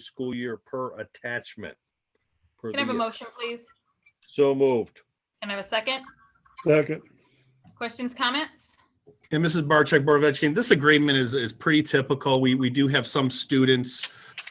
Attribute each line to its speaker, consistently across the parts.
Speaker 1: school year per attachment. per
Speaker 2: Can I have a
Speaker 1: the uh, year.
Speaker 2: motion, please?
Speaker 1: So moved.
Speaker 2: Can I have a second?
Speaker 3: Second.
Speaker 2: Questions, comments?
Speaker 4: And Mrs. Barcheck, Board of Education, this agreement is, is pretty typical. We, we do have some students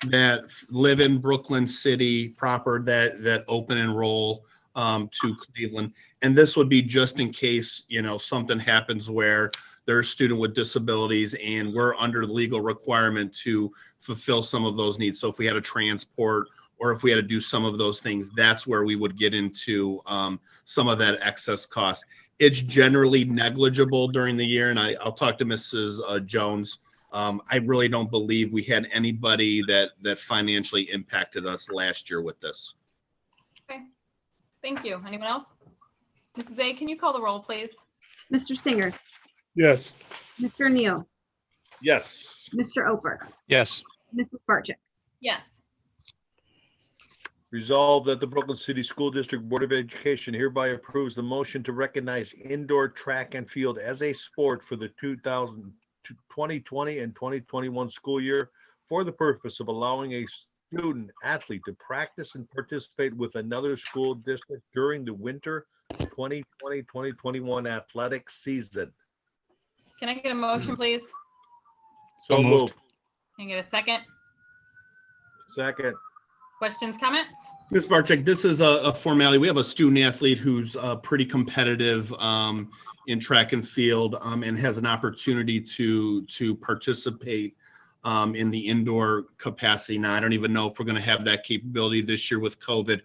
Speaker 4: that f- live in Brooklyn City proper that, that open enroll um, to Cleveland. And this would be just in case, you know, something happens where there's a student with disabilities and we're under the legal requirement to fulfill some of those needs. So if we had to transport or if we had to do some of those things, that's where we would get into um, some of that excess cost it's generally negligible during the year, and I, I'll talk to Mrs. uh, Jones. Um, I really don't believe we had anybody that, that financially impacted us last year with this.
Speaker 2: Thank you. Anyone else? Mrs. A, can you call the roll, please?
Speaker 5: Mr. Stinger,
Speaker 3: Yes.
Speaker 5: Mr. Neal,
Speaker 1: Yes.
Speaker 5: Mr. Oper,
Speaker 6: yes,
Speaker 5: Mrs. Barcheck,
Speaker 2: Yes.
Speaker 1: Resolved that the Brooklyn City School District Board of Education hereby approves the motion to recognize indoor track and field as a sport for the 2000 to 2020 and 2021 school year for the purpose of allowing a student athlete to practice and participate with another school district during the winter 2020-2021 athletic season.
Speaker 2: Can I get a motion, please?
Speaker 1: So
Speaker 6: So moved.
Speaker 1: moved.
Speaker 2: Can I get a second?
Speaker 1: Second.
Speaker 2: Questions, comments?
Speaker 4: Ms. Barczyk, this is a, a formality. We have a student athlete who's uh, pretty competitive um, in track and field um, and has an opportunity to to participate um, in the indoor capacity. Now, I don't even know if we're going to have that capability this year with COVID.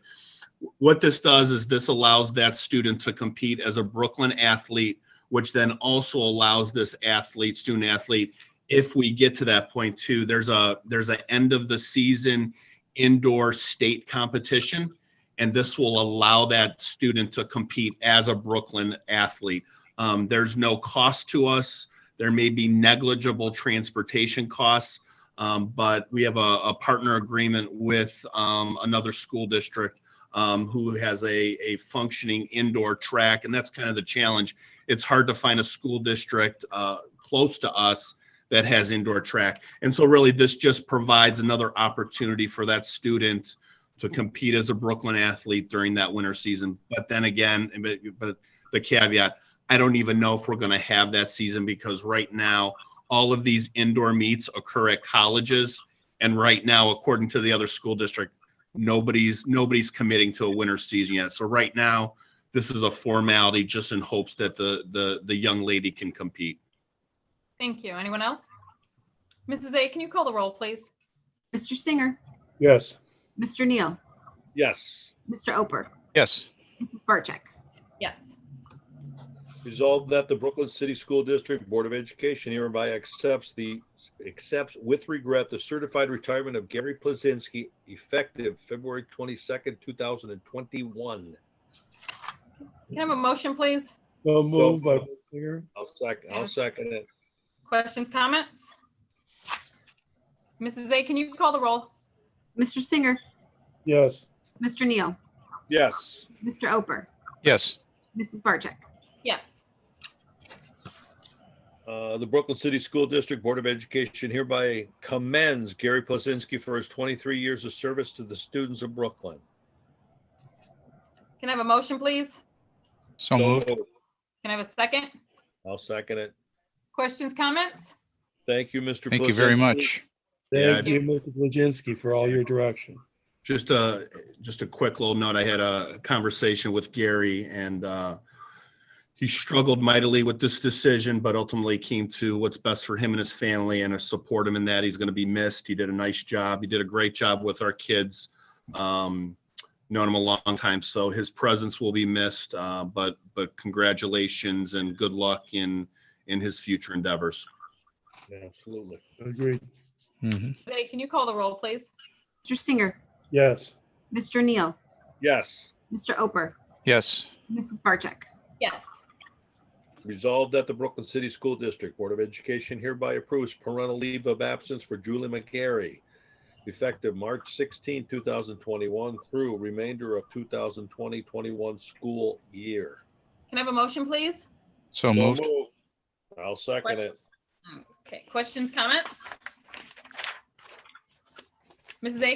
Speaker 4: What this does is this allows that student to compete as a Brooklyn athlete, which then also allows this athlete, student athlete, if we get to that point too, there's a there's an end of the season indoor state competition. And this will allow that student to compete as a Brooklyn athlete. Um, there's no cost to us. There may be negligible transportation costs, um, but we have a, a partner agreement with um, another school district um, who has a, a functioning indoor track. And that's kind of the challenge. It's hard to find a school district uh, close to us that has indoor track. And so really, this just provides another opportunity for that student to compete as a Brooklyn athlete during that winter season. But then again, but, but the caveat, I don't even know if we're going to have that season because right now, all of these indoor meets occur at colleges. And right now, according to the other school district, nobody's, nobody's committing to a winter season yet. So right now, this is a formality just in hopes that the, the, the young lady can compete.
Speaker 2: Thank you. Anyone else? Mrs. A, can you call the roll, please?
Speaker 5: Mr. Singer,
Speaker 3: Yes.
Speaker 5: Mr. Neal,
Speaker 1: Yes.
Speaker 5: Mr. Oper,
Speaker 6: yes,
Speaker 5: Mrs. Barcheck,
Speaker 2: Yes.
Speaker 1: Resolved that the Brooklyn City School District Board of Education hereby accepts the, accepts with regret the certified retirement of Gary Plazinski effective February twenty-second, two thousand and twenty-one.
Speaker 2: Can I have a motion, please?
Speaker 3: So moved by Singer.
Speaker 1: I'll second, I'll second it.
Speaker 2: Questions, comments? Mrs. A, can you call the roll?
Speaker 5: Mr. Singer,
Speaker 3: Yes.
Speaker 5: Mr. Neal,
Speaker 1: Yes.
Speaker 5: Mr. Oper,
Speaker 6: yes,
Speaker 5: Mrs. Barcheck,
Speaker 2: Yes.
Speaker 1: Uh, the Brooklyn City School District Board of Education hereby commends Gary Plazinski for his twenty-three years of service to the students of Brooklyn.
Speaker 2: Can I have a motion, please?
Speaker 6: so moved,
Speaker 2: Can I have a second?
Speaker 1: I'll second it.
Speaker 2: Questions, comments?
Speaker 1: Thank you, Mr.
Speaker 6: thank you very
Speaker 1: Plazinski.
Speaker 6: much.
Speaker 4: Yeah,
Speaker 3: Thank you, Mr. Blazinski, for all your direction.
Speaker 4: Just a, just a quick little note. I had a conversation with Gary and uh, he struggled mightily with this decision, but ultimately came to what's best for him and his family and I support him in that. He's going to be missed. He did a nice job. He did a great job with our kids. Um, Known him a long time, so his presence will be missed, uh, but, but congratulations and good luck in, in his future endeavors.
Speaker 1: Absolutely.
Speaker 3: Agreed.
Speaker 6: Mhm.
Speaker 2: Mrs. A, can you call the roll, please?
Speaker 5: Mr. Singer,
Speaker 3: Yes.
Speaker 5: Mr. Neal,
Speaker 1: Yes.
Speaker 5: Mr. Oper,
Speaker 6: Yes,
Speaker 5: Mrs. Barcheck,
Speaker 2: Yes.
Speaker 1: Resolved that the Brooklyn City School District Board of Education hereby approves parental leave of absence for Julie McGarry, effective March 16, 2021 through remainder of 2020-21 school year.
Speaker 2: Can I have a motion, please?
Speaker 6: so moved,
Speaker 1: I'll second it.
Speaker 2: Okay, questions, comments? Mrs. A,